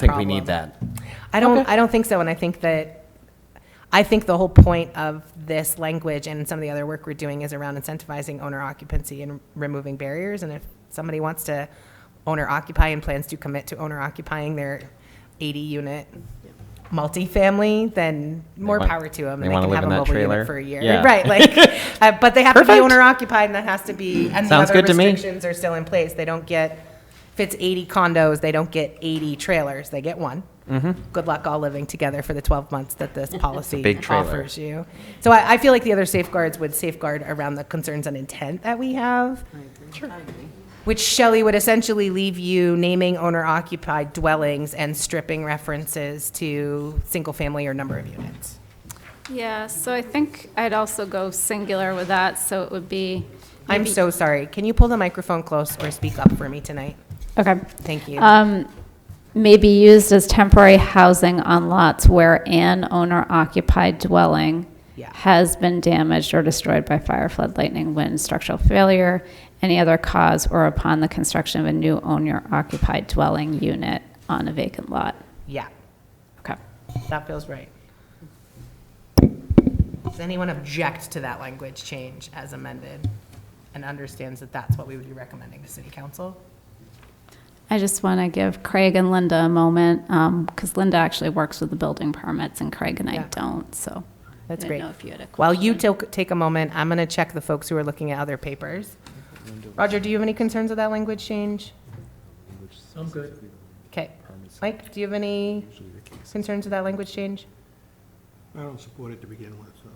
think we need problem. that. I don't, I don't think so, and I think that, I think the whole point of this language and some of the other work we're doing is around incentivizing owner occupancy and removing barriers, and if somebody wants to owner occupy and plans to commit to owner occupying their eighty unit multifamily, then more want- power to them. they wanna live in that trailer? For a year, Yeah. right, like, uh, but they have to be Perfect. owner occupied, and that has to be, and the Sounds other good to me. restrictions are still in place, they don't get, if it's eighty condos, they don't get eighty trailers, they get one good luck all living together for the 12 months that this policy big trailer. offers you. So I, I feel like the other safeguards would safeguard around the concerns and intent that we have. Which Shelley would essentially leave you naming owner occupied dwellings and stripping references to single family or number of units. Yeah, so I think I'd also go singular with that, so it would be. I'm maybe- so sorry. Can you pull the microphone close or speak up for me tonight? Okay. Thank you. Uh, Um, may be used as temporary housing on lots where an owner-occupied dwelling Yeah. has been damaged or destroyed by fire, flood, lightning, wind, structural failure, any other cause, or upon the construction of a new owner-occupied dwelling unit on a vacant lot. Yeah, Okay. that feels right. Does anyone object to that language change as amended and understands that that's what we would be recommending to city council? I just want to give Craig and Linda a moment, because Linda actually works with the building permits, and Craig and I Yeah. don't, so. That's I great. didn't know if you had a While question. you take, take a moment, I'm going to check the folks who are looking at other papers. Roger, do you have any concerns with that language change? I'm good. Okay. Mike, do you have any concerns with that language change? I don't support it to begin with, so.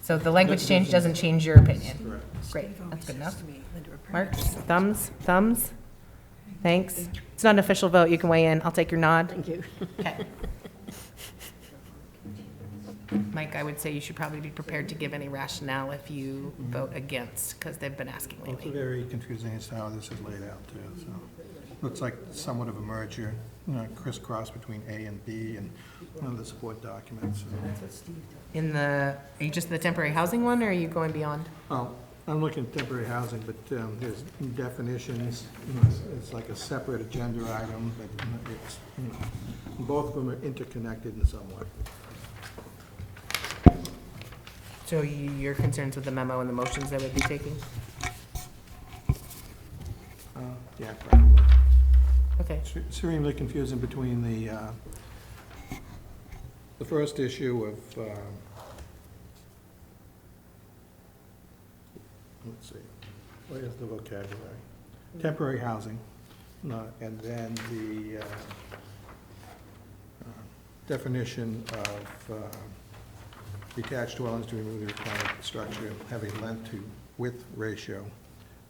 So the language change doesn't change your opinion? Great, that's good enough. Mark, thumbs, thumbs? Thanks. It's not an official vote, you can weigh in, I'll take your nod. Thank you. Mike, I would say you should probably be prepared to give any rationale if you vote against, because they've been asking It's lately. very confusing as to how this is laid out, too, so. Looks like somewhat of a merger, you know, crisscross between A and B and one of the support documents. so. In the, are you just the temporary housing one, or are you going beyond? Well, I'm looking at temporary housing, but um, there's definitions, you know, it's- it's like a separate agenda item, but you know, it's, you know, both of them are interconnected in some way. So you- your concerns with the memo and the motions that we'd be taking? Uh, Yeah, probably. Okay, It's Extremely confusing between the, uh, the first issue of, um, let's see, where's the vocabulary? Temporary housing, no, and then the uh, uh, definition of uh, detached dwellings to remove the required structure, have a length to width ratio.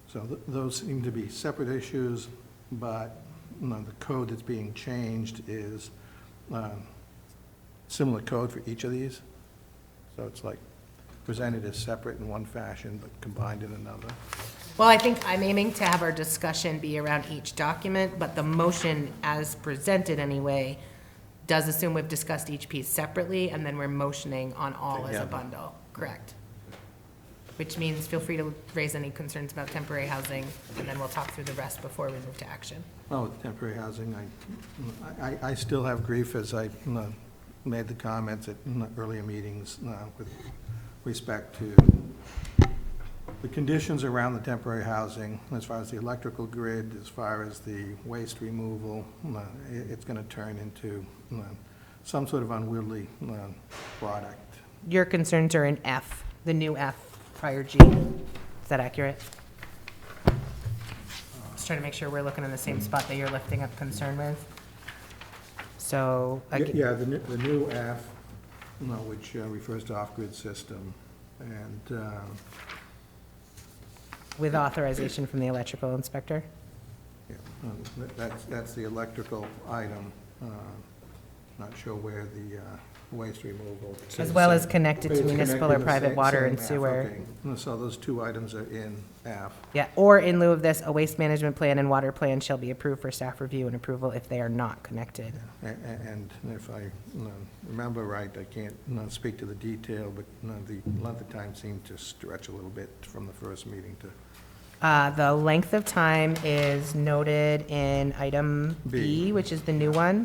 So th- those seem to be separate issues, but you know, the code that's being changed is um, similar code for each of these. So it's like presented as separate in one fashion, but combined in another. well, I think I'm aiming to have our discussion be around each document, but the motion as presented anyway does assume we've discussed each piece separately, and then we're motioning on all as a Together. bundle, correct? Which means feel free to raise any concerns about temporary housing, and then we'll talk through the rest before we move to action. Oh, with temporary housing, I- I, I still have grief as I you know, made the comments at you know, earlier meetings you know, with respect to the conditions around the temporary housing, as far as the electrical grid, as far as the waste removal, you know, it- it's going to turn into you know, some sort of unwieldy you know, product. Your concerns are in F, the new F prior G. Is that accurate? Just trying to make sure we're looking in the same spot that you're lifting up concern with. So, like, Yeah, the new, the new F, you know, which uh, refers to off-grid system, and, um, with authorization from the electrical inspector? Yeah, um, that- That's, that's the electrical item. uh, Not sure where the uh, waste removal. As well as connected It's to connected municipal or the private same- water same and F, sewer. okay. No, So those two items are in F. Yeah, or in lieu of this, a waste management plan and water plan shall be approved for staff review and approval if they are not connected. A- a- And if I you know, remember right, I can't you know, speak to the detail, but you know, the length of time seemed to stretch a little bit from the first meeting to Uh, The length of time is noted in item B, B. which is the new one.